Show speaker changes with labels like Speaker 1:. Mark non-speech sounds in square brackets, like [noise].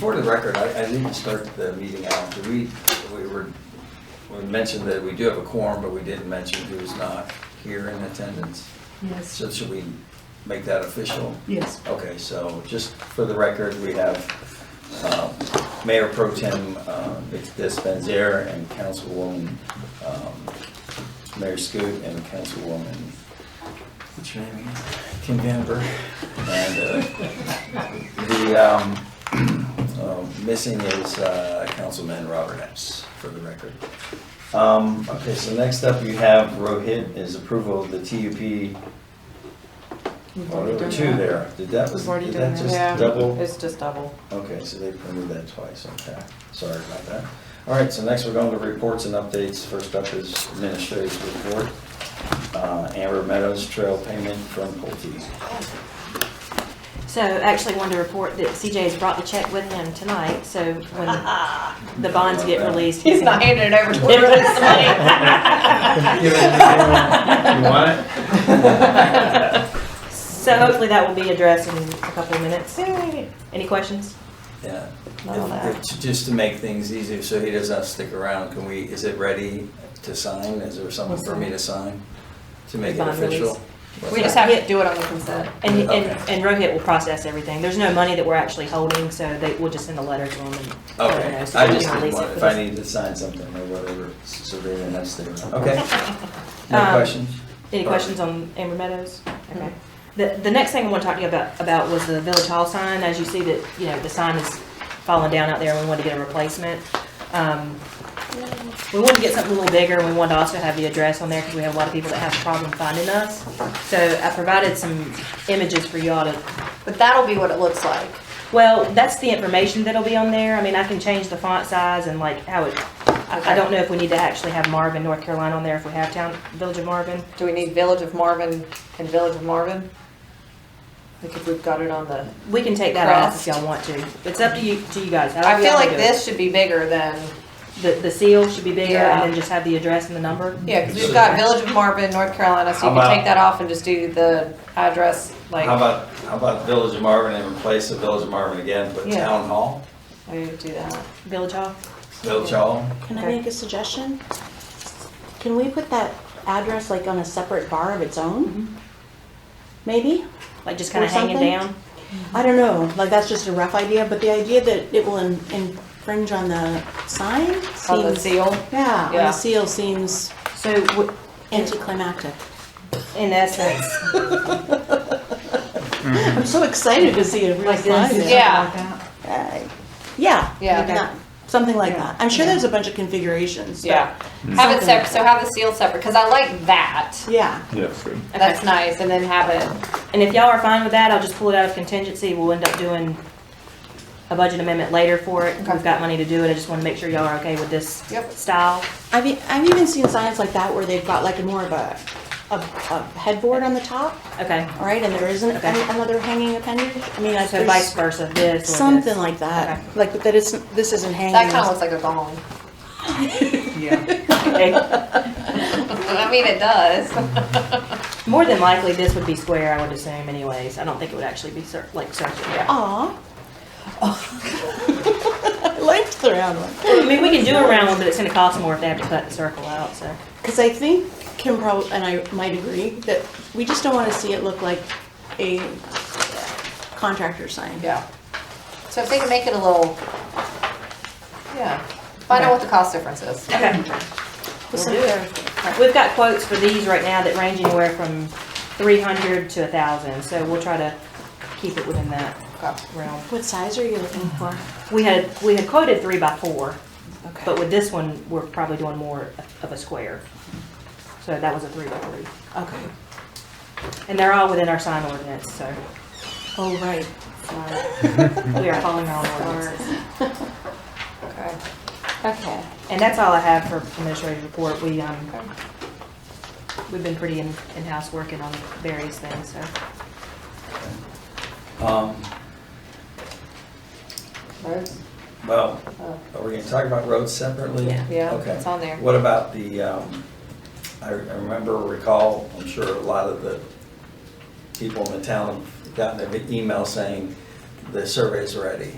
Speaker 1: For the record, I, I didn't start the meeting out, Did we, we were, we mentioned that we do have a quorum, but we didn't mention who's not here in attendance.
Speaker 2: Yes,
Speaker 1: So should we make that official?
Speaker 2: yes.
Speaker 1: Okay, so just for the record, we have um, Mayor Pro Tem uh, Vic Despenzer and Councilwoman, um, Mayor Scoot and Councilwoman, what's her name again? Kim Bamber. And uh, the um, [clears throat] uh, missing is uh, Councilman Robert Epps, for the record. Um, Okay, so next up you have Rohit is approval of the TUP
Speaker 2: We've
Speaker 1: Oh,
Speaker 2: already
Speaker 1: there were
Speaker 2: done
Speaker 1: two
Speaker 2: that.
Speaker 1: there. Did that, was,
Speaker 2: We've already
Speaker 1: did
Speaker 2: done
Speaker 1: that
Speaker 2: that.
Speaker 1: just
Speaker 3: Yeah,
Speaker 1: double?
Speaker 3: It's just double.
Speaker 1: Okay, so they printed that twice, okay. Sorry about that. All right, so next we're going to reports and updates. First up is administrative report. Uh, Amber Meadows Trail payment from Pulte.
Speaker 4: So actually wanted to report that CJ has brought the check with him tonight, so
Speaker 3: [laughs]
Speaker 4: when the bonds get released.
Speaker 3: He's not
Speaker 4: gonna-
Speaker 3: handing it over to her this
Speaker 1: You want it? [laughs]
Speaker 2: [laughs]
Speaker 4: So hopefully that will be addressed in a couple of minutes. Any questions?
Speaker 1: Yeah.
Speaker 4: Not all that.
Speaker 1: If- if- Just to make things easier, so he doesn't have to stick around, can we, is it ready to sign? Is there something for me to sign? To make it
Speaker 4: Bond release.
Speaker 1: official?
Speaker 3: We just have to do it on the consent.
Speaker 4: And, and,
Speaker 1: Okay.
Speaker 4: and Rohit will process everything. There's no money that we're actually holding, so they, we'll just send a letter to him and. let him
Speaker 1: Okay,
Speaker 4: know so
Speaker 1: I
Speaker 4: they can
Speaker 1: just didn't
Speaker 4: release it
Speaker 1: want,
Speaker 4: for
Speaker 1: if I
Speaker 4: this.
Speaker 1: needed to sign something or whatever, so they didn't have to stay around. [laughs] Okay. No
Speaker 4: Um,
Speaker 1: questions?
Speaker 4: Any
Speaker 1: Or-
Speaker 4: questions on Amber Meadows? Okay. The, the next thing I want to talk to you about, about was the Village Hall sign. As you see that, you know, the sign is falling down out there and we want to get a replacement. Um, We wanted to get something a little bigger and we wanted to also have the address on there because we have a lot of people that have a problem finding us. So I provided some images for y'all to
Speaker 3: But that'll be what it looks like.
Speaker 4: well, that's the information that'll be on there. I mean, I can change the font size and like how it, I, I don't know if we need to actually have Marvin, North Carolina on there, if we have town, Village of Marvin.
Speaker 3: Do we need Village of Marvin and Village of Marvin? Because we've got it on the,
Speaker 4: We can take that off if
Speaker 3: Crossed.
Speaker 4: y'all want to. It's up to you, to you guys. however
Speaker 3: I feel
Speaker 4: y'all
Speaker 3: like
Speaker 4: do it.
Speaker 3: this should be bigger than,
Speaker 4: The, the seal should be bigger
Speaker 3: Yeah.
Speaker 4: and then just have the address and the number.
Speaker 3: yeah, because we've got Village of Marvin, North Carolina, so you
Speaker 1: How
Speaker 3: can
Speaker 1: about-
Speaker 3: take that off and just do the address, like,
Speaker 1: How about, how about Village of Marvin and replace the Village of Marvin again, but
Speaker 3: Yeah.
Speaker 1: Town Hall,
Speaker 3: maybe do that.
Speaker 4: Village Hall.
Speaker 1: Village [laughs] Hall?
Speaker 5: Can I
Speaker 3: Okay.
Speaker 5: make a suggestion? Can we put that address like on a separate bar of its
Speaker 3: Mm-hmm.
Speaker 5: own? Maybe?
Speaker 4: Like just kind
Speaker 5: Or
Speaker 4: of hanging
Speaker 5: something?
Speaker 4: down.
Speaker 5: I don't know, like that's just a rough idea, but the idea that it will in- infringe on the sign
Speaker 3: On the
Speaker 5: seems.
Speaker 3: seal,
Speaker 5: Yeah, on
Speaker 3: Yeah.
Speaker 5: the seal seems
Speaker 4: So w-
Speaker 5: anticlimactic.
Speaker 4: in essence,
Speaker 5: I'm so excited to see it real
Speaker 4: like this.
Speaker 5: slide.
Speaker 3: Yeah.
Speaker 5: Uh, Yeah.
Speaker 3: Yeah.
Speaker 5: maybe that. Something like
Speaker 3: Yeah.
Speaker 5: that. I'm sure there's a bunch of configurations. but-
Speaker 3: yeah.
Speaker 1: Hmm.
Speaker 3: Have it
Speaker 5: Something like
Speaker 3: separate, so have the seal separate, because I like that.
Speaker 5: Yeah.
Speaker 3: That's nice, and then have it,
Speaker 4: And if y'all are fine with that, I'll just pull it out of contingency. We'll end up doing a budget amendment later for it.
Speaker 3: Okay.
Speaker 4: We've got money to do it. I just want to make sure y'all are okay with this
Speaker 3: Yep.
Speaker 4: style.
Speaker 5: I've, e- I've even seen signs like that where they've got like more of a, a, a headboard on the top,
Speaker 4: Okay.
Speaker 5: all right, and there isn't
Speaker 4: Okay.
Speaker 5: an- another hanging appendage. I mean, I
Speaker 4: So vice versa, this or this.
Speaker 5: Something like that,
Speaker 4: Okay.
Speaker 5: like that it's, this isn't hanging.
Speaker 3: that kind of looks like a gong.
Speaker 4: Okay.
Speaker 3: [laughs] I mean, it does.
Speaker 4: [laughs] More than likely, this would be square, I would assume anyways. I don't think it would actually be cir- like circular.
Speaker 5: [laughs] Aw. [laughs] I liked the round one,
Speaker 4: I mean, we can do a round one, but it's gonna cost more if they have to cut the circle out, so.
Speaker 5: because I think Kim probably, and I might agree, that we just don't want to see it look like a contractor sign.
Speaker 3: Yeah. So if they can make it a little, yeah, find out what the cost difference is.
Speaker 4: Okay.
Speaker 5: With
Speaker 4: We'll do
Speaker 5: some-
Speaker 4: We've got quotes for these right now that range anywhere from three hundred to a thousand, so we'll try to keep it within that
Speaker 3: Okay.
Speaker 4: realm.
Speaker 5: What size are you looking for?
Speaker 4: We had, we had quoted three by four,
Speaker 5: Okay.
Speaker 4: but with this one, we're probably doing more of a square. So that was a three by three.
Speaker 5: Okay.
Speaker 4: And they're all within our sign ordinance, so
Speaker 5: Oh, right. Sorry.
Speaker 4: we are following our own ordinances.
Speaker 3: Okay.
Speaker 5: Okay.
Speaker 4: And that's all I have for administrative report. We, um, we've been pretty in- in-house working on various things, so.
Speaker 1: Um,
Speaker 3: Rose?
Speaker 1: well,
Speaker 3: Oh,
Speaker 1: are we gonna talk about roads separately?
Speaker 4: Yeah.
Speaker 3: Yeah,
Speaker 1: Okay.
Speaker 3: it's on there.
Speaker 1: What about the, um, I, I remember, recall, I'm sure a lot of the people in the town have gotten their email saying the survey's ready.